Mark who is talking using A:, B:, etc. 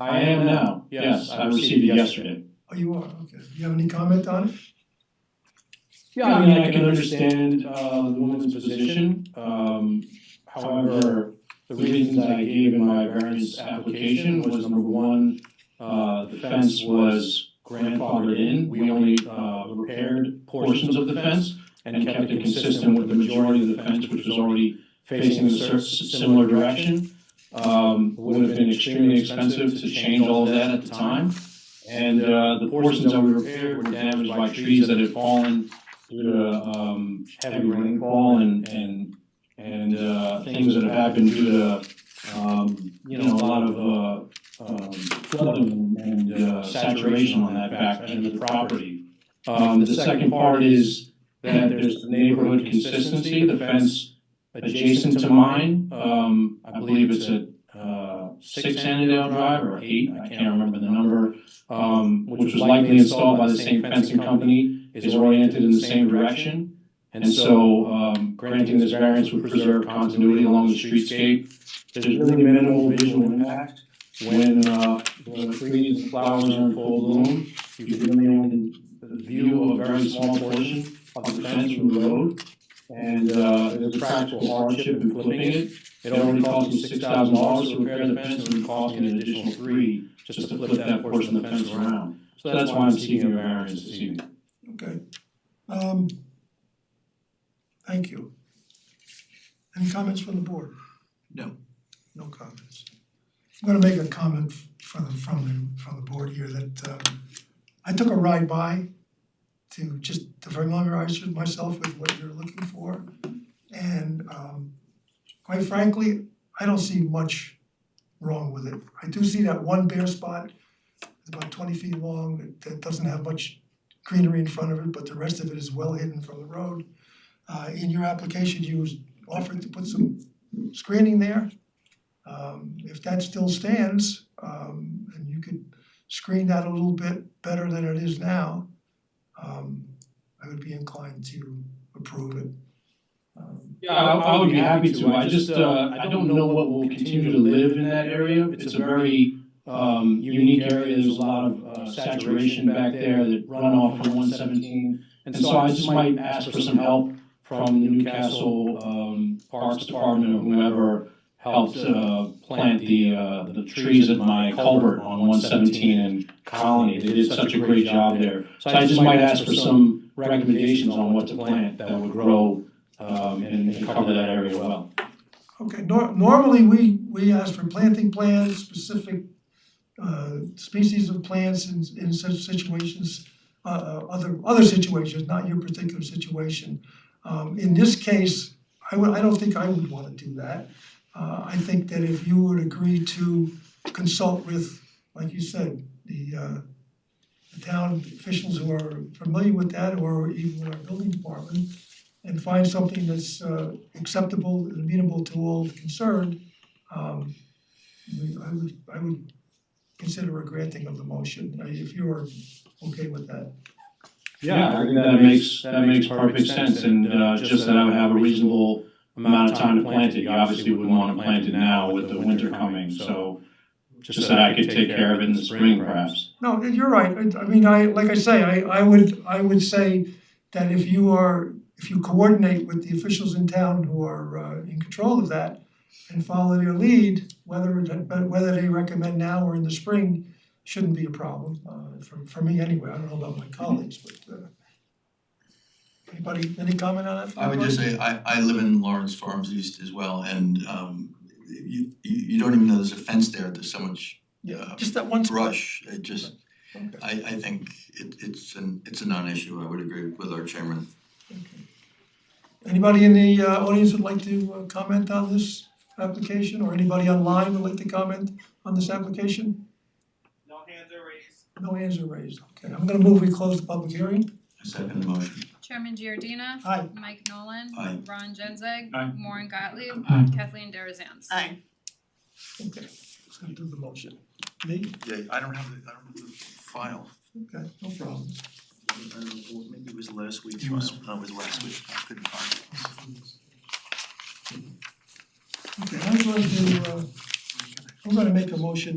A: I am now, yes, I received it yesterday.
B: Oh, you are, okay. Do you have any comment on it?
A: Yeah, I mean, I can understand uh the woman's position, um however, the reasons I gave in my variance application was number one, uh the fence was grandfathered in, we only uh repaired portions of the fence and kept it consistent with the majority of the fence, which was already facing a cer- similar direction. Um would have been extremely expensive to change all of that at the time. And uh the portions that we repaired were damaged by trees that had fallen due to um heavy rainfall and and and uh things that have happened due to um you know, a lot of uh um flooding and uh saturation on that back end of the property. Um the second part is that there's neighborhood consistency, the fence adjacent to mine, um I believe it's a uh six Annandale Drive or eight, I can't remember the number um, which was likely installed by the same fencing company, is oriented in the same direction. And so, um, granting this variance would preserve continuity along the streetscape. There's really minimal visual impact when, uh, the trees and flowers are in full bloom. You can really only view a very small portion of the fence from the road. And, uh, there's a practical hardship in flipping it. It already cost me six thousand dollars to repair the fence, and it would cost me an additional three just to flip that portion of the fence around. So that's why I'm seeking a variance this evening.
B: Okay. Um, thank you. Any comments from the board?
C: No.
B: No comments. I'm gonna make a comment from the from the from the board here that um I took a ride by to just to familiarize with myself with what you're looking for. And um quite frankly, I don't see much wrong with it. I do see that one bare spot, it's about twenty feet long, that- that doesn't have much greenery in front of it, but the rest of it is well hidden from the road. Uh in your application, you was offered to put some screening there. Um if that still stands, um and you could screen that a little bit better than it is now, um I would be inclined to approve it. Um
A: Yeah, I I would be happy to. I just, uh, I don't know what will continue to live in that area. It's a very, um, unique area. There's a lot of uh, saturation back there, the runoff from one seventeen. And so I just might ask for some help from the Newcastle, um, Parks Department or whomever helped, uh, plant the, uh, the trees at my culvert on one seventeen and Colony. They did such a great job there. So I just might ask for some recommendations on what to plant that would grow um, and and cover that area well.
B: Okay, nor- normally, we we ask for planting plans, specific uh species of plants in in such situations, uh uh, other other situations, not your particular situation. Um in this case, I would, I don't think I would wanna do that. Uh I think that if you would agree to consult with, like you said, the uh the town officials who are familiar with that or even with our building department, and find something that's uh acceptable and amenable to all concerned, um we I would I would consider a granting of the motion, uh, if you're okay with that.
A: I think that makes, that makes perfect sense, and uh, just that I would have a reasonable amount of time to plant it. You obviously wouldn't want to plant it now with the winter coming, so just that I could take care of it in the spring perhaps.
B: No, you're right, I I mean, I, like I say, I I would I would say that if you are, if you coordinate with the officials in town who are uh in control of that and follow their lead, whether it- but whether they recommend now or in the spring shouldn't be a problem, uh for for me anyway, I don't know about my colleagues, but uh anybody, any comment on that? from
C: I would
B: the
C: just
B: board?
C: say, I I live in Lawrence Farms East as well, and um you you you don't even know there's a fence there, there's so much
B: Yeah,
C: uh,
B: just that one spot.
C: brush, it just,
B: Okay.
C: I I think it it's an, it's a non-issue, I would agree with our chairman.
B: Anybody in the uh audience would like to uh comment on this application or anybody online would like to comment on this application?
D: No hands are raised.
B: No hands are raised, okay, I'm gonna move, we close the public hearing.
C: I second the motion.
E: Chairman Giordina.
B: Aye.
E: Mike Nolan.
C: Aye.
E: Ron Genzeg.
A: Aye.
E: Warren Gottlieb.
A: Aye.
E: Kathleen Darazan.
F: Aye.
B: Okay, let's go do the motion. Me?
C: Yeah, I don't have the, I don't have the file.
B: Okay, no problem.
C: I don't know, Uh, maybe it was last week's file, no, it was last week, I couldn't find it.
B: Okay, I'm going to, uh, I'm gonna make a motion